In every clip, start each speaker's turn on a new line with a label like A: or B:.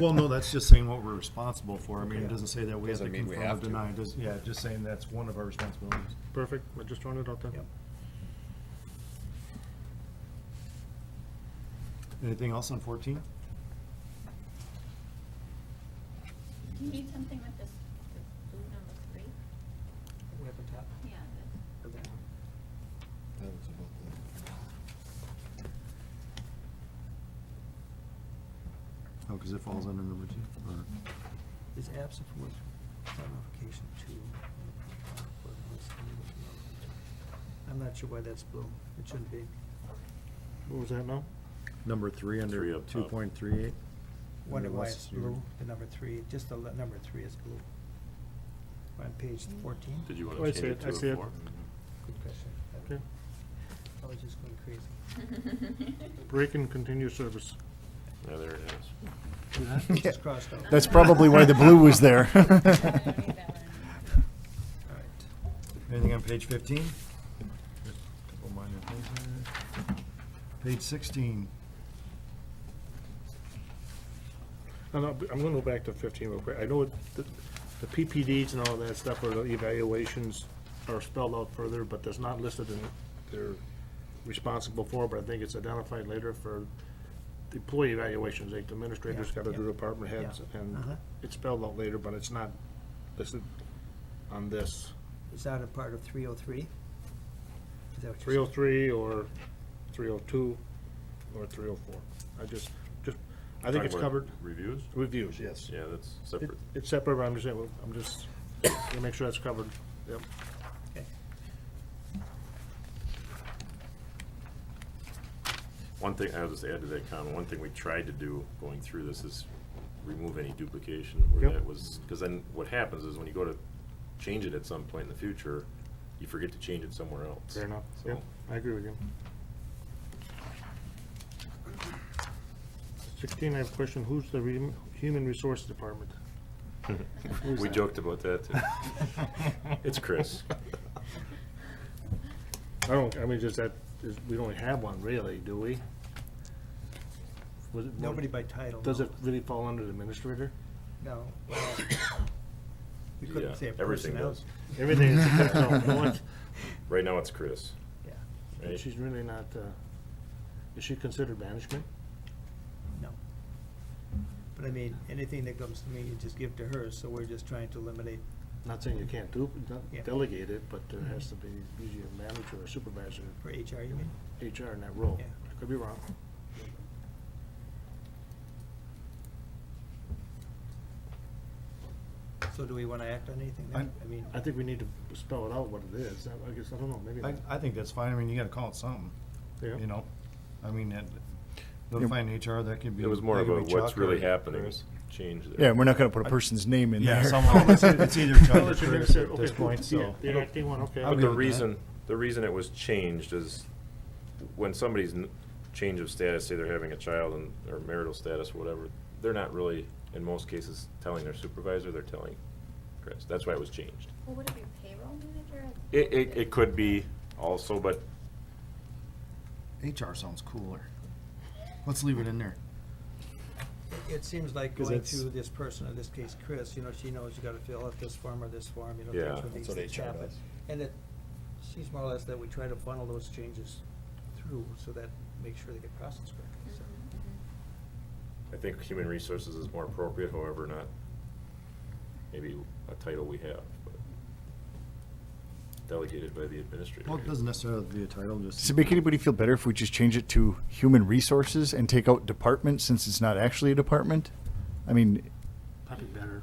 A: Well, no, that's just saying what we're responsible for. I mean, it doesn't say that we have to
B: Doesn't mean we
A: confirm or
B: have to.
A: deny. It does- Yeah, just saying that's one of our responsibilities.
C: Perfect, I just throwing it out there.
A: Yep. Anything else on fourteen?
D: Do you need something with this, this blue number three?
E: Way up on top,
D: Yeah, that's
E: or down?
A: Oh, because it falls under number two. Or-
E: Is absent from which without notification uh, to. I'm not sure why that's blue. It shouldn't be.
C: What was that now?
A: Number three
F: Three
A: under
F: up
A: two
F: top.
A: point three eight?
E: Wonder why it's blue, the number three, just the le- number three is blue. On page fourteen?
F: Mm. Did you want
C: Oh, I
F: to
C: see
F: change
C: it,
F: it
C: I see
F: to
C: it.
F: a four?
E: Good question.
C: Okay,
E: I was just going crazy.
C: break and continue service.
F: Yeah, there it is.
E: It's just crossed out.
B: That's probably why the blue was there.
D: I don't need that one.
E: All right.
A: Anything on page fifteen? Couple minor things there. Page sixteen.
C: No, no, I'm gonna go back to fifteen real quick. I know the, the PPDs and all that stuff, or the evaluations are spelled out further, but that's not listed in, they're responsible for, but I think it's identified later for the employee evaluations, like the administrators
E: Yeah,
C: gotta do
E: yeah,
C: department heads,
E: yeah,
C: and
E: uh-huh.
C: it's spelled out later, but it's not listed on this.
E: Is that a part of three oh three? Is that what
C: Three
E: you're
C: oh
E: saying?
C: three, or three oh two, or three oh four. I just, just, I think it's
F: Talking about
C: covered.
F: Reviews?
C: Reviews, yes.
F: Yeah, that's
C: It-
F: separate.
C: It's separate, but I'm just, saying, well, I'm just, gonna make sure that's covered, yep.
E: Okay.
F: One thing, I'll just add to that comment, one thing we tried to do going through this is remove any duplication where
C: Yep.
F: that was, because then what happens is when you go to change it at some point in the future, you forget to change it somewhere else.
C: Fair enough,
F: So-
C: yep, I agree with you. Sixteen, I have a question, who's the rem- Human Resource Department? Who's
F: We
C: that?
F: joked about that too. It's Chris.
C: I don't, I mean, just that, is, we don't have one really, do we? Was it-
E: Nobody by title.
C: Does
E: no.
C: it really fall under the administrator?
E: No. well, We
F: Yeah,
E: couldn't say a
F: everything
E: personnel.
F: does.
C: Everything is, no, no, it's-
F: Right now, it's Chris,
E: Yeah,
F: right?
C: she's really not, uh, is she considered management?
E: no. But I mean, anything that comes to me, you just give to her, so we're just trying to eliminate,
C: Not saying you can't do, not
E: Yeah.
C: delegate it, but there has to be usually a manager or supervisor,
E: for HR, you mean?
C: HR in that role.
E: Yeah.
C: I Could be wrong.
E: So do we want to act on anything then?
A: I-
E: I mean,
C: I think we need to spell it out what it is. I I guess, I don't know, maybe.
A: I, I think that's fine. I mean, you gotta call it something,
C: Yeah.
A: you know? I mean, that, notifying HR, that could be.
F: It was more
A: that
F: of
A: could
F: a
A: be
F: what's
A: Chuck or
F: really happening
A: Chris.
F: change there.
B: Yeah, we're not gonna put a person's name in there.
A: Yeah, someone, it's either- it's either Chuck or
C: Unless you
A: Chris
C: mix it-
A: at
C: okay,
A: this
C: cool.
A: point,
C: Yeah,
A: so.
C: The acting one, okay.
A: I'm
F: But
A: good
F: the
A: with that.
F: reason, the reason it was changed is when somebody's n- change of status, say they're having a child and, or marital status, whatever, they're not really, in most cases, telling their supervisor, they're telling Chris. That's why it was changed.
D: Well, would it be payroll manager?
F: It, it, it could be also, but
A: HR sounds cooler. Let's leave it in there.
E: it seems like
A: 'Cause
E: going
A: it's-
E: through this person, in this case Chris, you know, she knows you got to fill out this form or this form, you know.
F: Yeah,
E: things with
B: that's
E: these
B: what
E: things
B: HR
E: happen.
B: does.
E: And it, she's more or less that we try to funnel those changes through, so that, make sure they get processed correctly,
D: Mm-hmm,
E: so.
F: I think human resources is more appropriate, however, not maybe a title we have, but delegated by the administrator.
A: Well, it doesn't necessarily have to be a title, just.
B: Does it make anybody feel better if we just change it to human resources and take out department since it's not actually a department? I mean,
C: Probably better.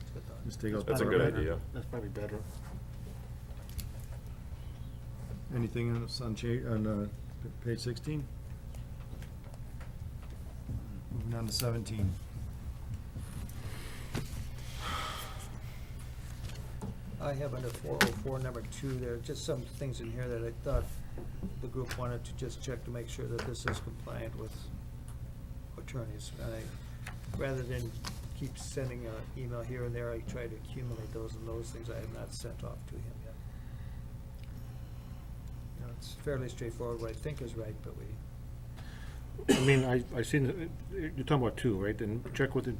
E: it's good thought.
A: Just take out.
F: That's a
A: department.
F: good idea.
C: That's probably better.
A: Anything else on cha, on, uh, p- page sixteen? Moving on to seventeen.
E: I have under four oh four, number two, there are just some things in here that I thought the group wanted to just check to make sure that this is compliant with attorneys. And I, rather than keep sending an email here and there, I try to accumulate those, and those things I have not sent off to him yet. Now, it's fairly straightforward, what I think is right, but we
C: uh, I mean, I, I seen, it- you're talking about two, right? And check with the